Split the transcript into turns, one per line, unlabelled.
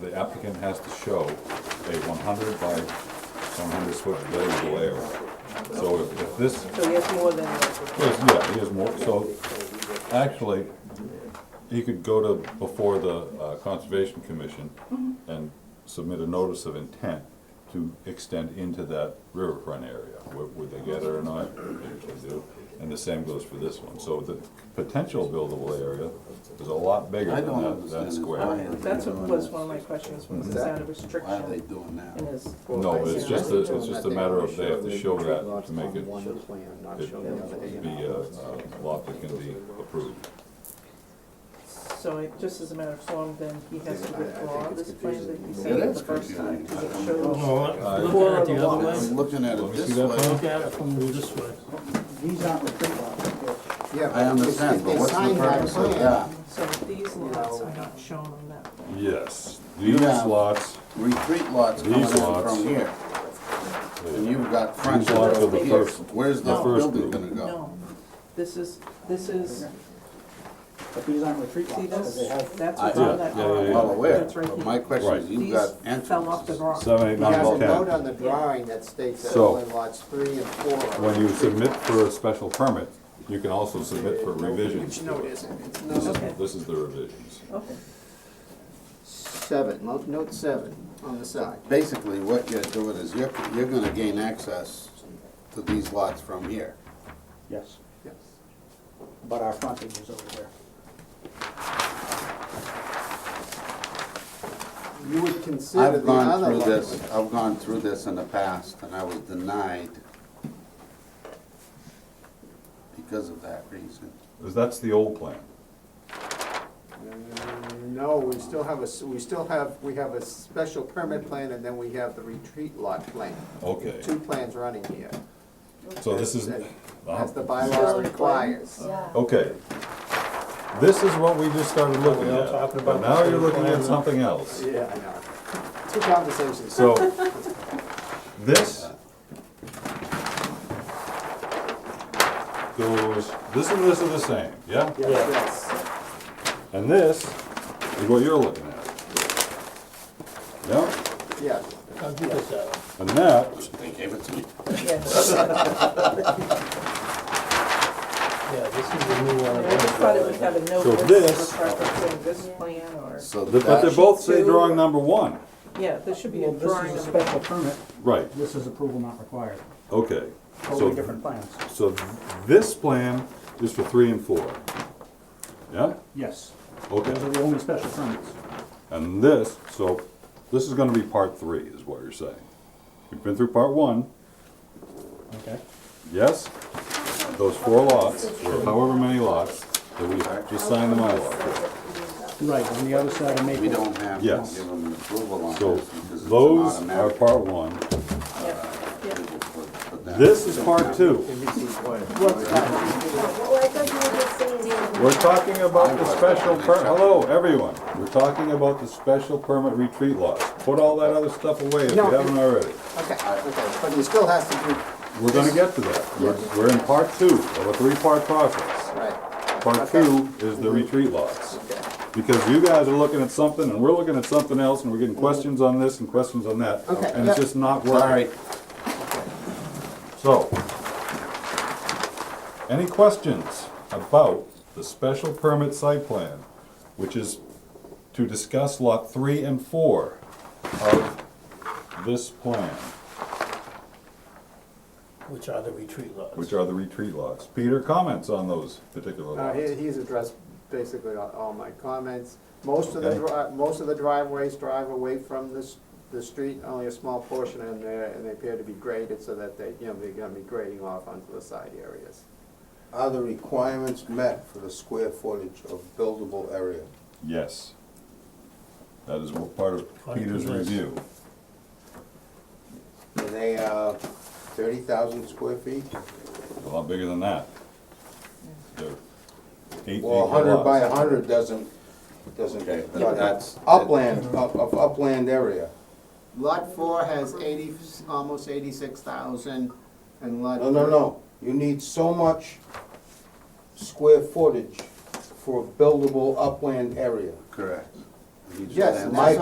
the applicant has to show a one hundred by one hundred foot buildable area. So if if this,
So he has more than,
yes, yeah, he has more, so actually, he could go to, before the uh, Conservation Commission and submit a notice of intent to extend into that riverfront area. Would would they get it or not? They usually do. And the same goes for this one. So the potential buildable area is a lot bigger
I
than
don't
that,
understand
that
this.
square.
Why are they
that's what
doing
was
this?
one of my questions, was is
What's
that a
Why are they
restriction
doing
in
that?
his?
No, it's just, a- it's
I
just a
think
matter
we
of they have to
showed
show
the
that
lots
to make
on
it,
One plan, not
it
show the other. A and
be
R.
a uh, lot that can be approved.
So it, just as a matter of form, then he has to
I- I
withdraw
think it's
this plan that he
confusing.
sent
It
the
is
first time,
confusing.
because
I
it
don't
shows.
No,
Uh,
look
Four
at it
of
the
the
other
lots.
I'm
way.
looking at
Let
it
me see
this
that
way.
plan.
Look at it from this way.
These aren't the three lots. Yeah.
I understand, but what's the purpose of that?
So these lots are not shown on that plan.
Yes, these
Yeah.
lots,
Retreat lots coming in
These lots.
from here, and you've got
these lots are
frontage
the
Here.
first,
Where's
No.
this building
First
gonna go?
No, this is, this is,
But these aren't retreat
see
lots, because they
this,
have.
that's
I-
what's
yeah,
on that
yeah,
drawing.
yeah,
Well aware,
That's right
but my
here.
question is, you've got
These fell off the
entrances.
rock.
seven, eight,
He
nine,
has
well,
a note
ten.
on the drawing that states that
So-
only lots three and four. are
When you submit for a special permit, you can also submit for revisions. to it. This is,
Okay.
this is the revisions.
Okay,
Seven, note- note seven on the side.
Basically, what you're doing is you're, you're gonna gain access to these lots from here.
Yes. Yes. But our frontage is over there. You would consider
I've
the
gone
other
through
lots.
this, I've gone through this in the past, and I was denied because of that reason.
'Cause that's the old plan.
No, we still have a, s- we still have, we have a special permit plan and then we have the retreat lot plan.
Okay,
Two plans running here,
so this is,
as
uh-huh.
the bylaw requires.
okay. This is what we just started looking
We're all
at.
talking
but
about the
Now
same
you're looking
plan
at
now.
something else.
Yeah, I know. Two conversations.
So, this goes, this and this are the same, yeah?
Yes, yes.
And this is what you're looking at. Yeah,
Yes,
I'll give this out.
and that
They gave it to me.
yes.
Yeah, this is the new one.
I just thought it would have a note
So
that's
this-
for referencing this plan or,
So
Th- But they
that,
both say drawing number one.
yeah, there should be a
Well,
drawing
this is
of
a
it.
special permit,
Right,
this is approval not required,
okay.
totally
So,
different plans,
so this plan is for three and four. Yeah?
yes. Those are
Okay.
the only special permits.
And this, so this is gonna be part three, is what you're saying. You've been through part one,
Okay.
yes? Those four lots, or however many lots, that we actually signed them out.
Right, on the other side of Maple.
we don't have to
Yes.
give them approval on
So
this because it's an
those are
automatic.
part one.
Yeah.
approval for- for that.
This is part two.
Well, I thought you were just saying.
We're talking about the special per, hello, everyone, we're talking about the special permit retreat laws. Put all that other stuff away if you
No.
haven't already.
okay, okay, but you still has to do,
We're gonna get to that. We're, we're in part two of a three-part process.
right,
Part two is the retreat laws.
okay.
Because you guys are looking at something and we're looking at something else and we're getting questions on this and questions on that.
Okay,
And it's
yeah.
just not
Sorry,
working. So, any questions about the special permit site plan, which is to discuss lot three and four of this plan,
Which are the retreat lots.
which are the retreat lots? Peter, comments on those particular
Uh, he,
lots?
he's addressed basically all, all my comments. Most of the,
Okay.
dri- most of the driveways drive away from this, the street, only a small portion in there, and they appear to be graded so that they, you know, they're gonna be grading off onto the side areas.
are the requirements met for the square footage of buildable area?
Yes. That is what part of
Part of
Peter's
this.
review.
Are they, uh, thirty thousand square feet?
A lot bigger than that. They're eight acre
Well, hundred by
lots.
hundred doesn't, doesn't, no, that's
Yeah.
upland, up, of upland area.
Lot four has eighty, almost eighty-six thousand, and lot.
No, no, no, you need so much square footage for a buildable upland area. Correct.
Yes, and that's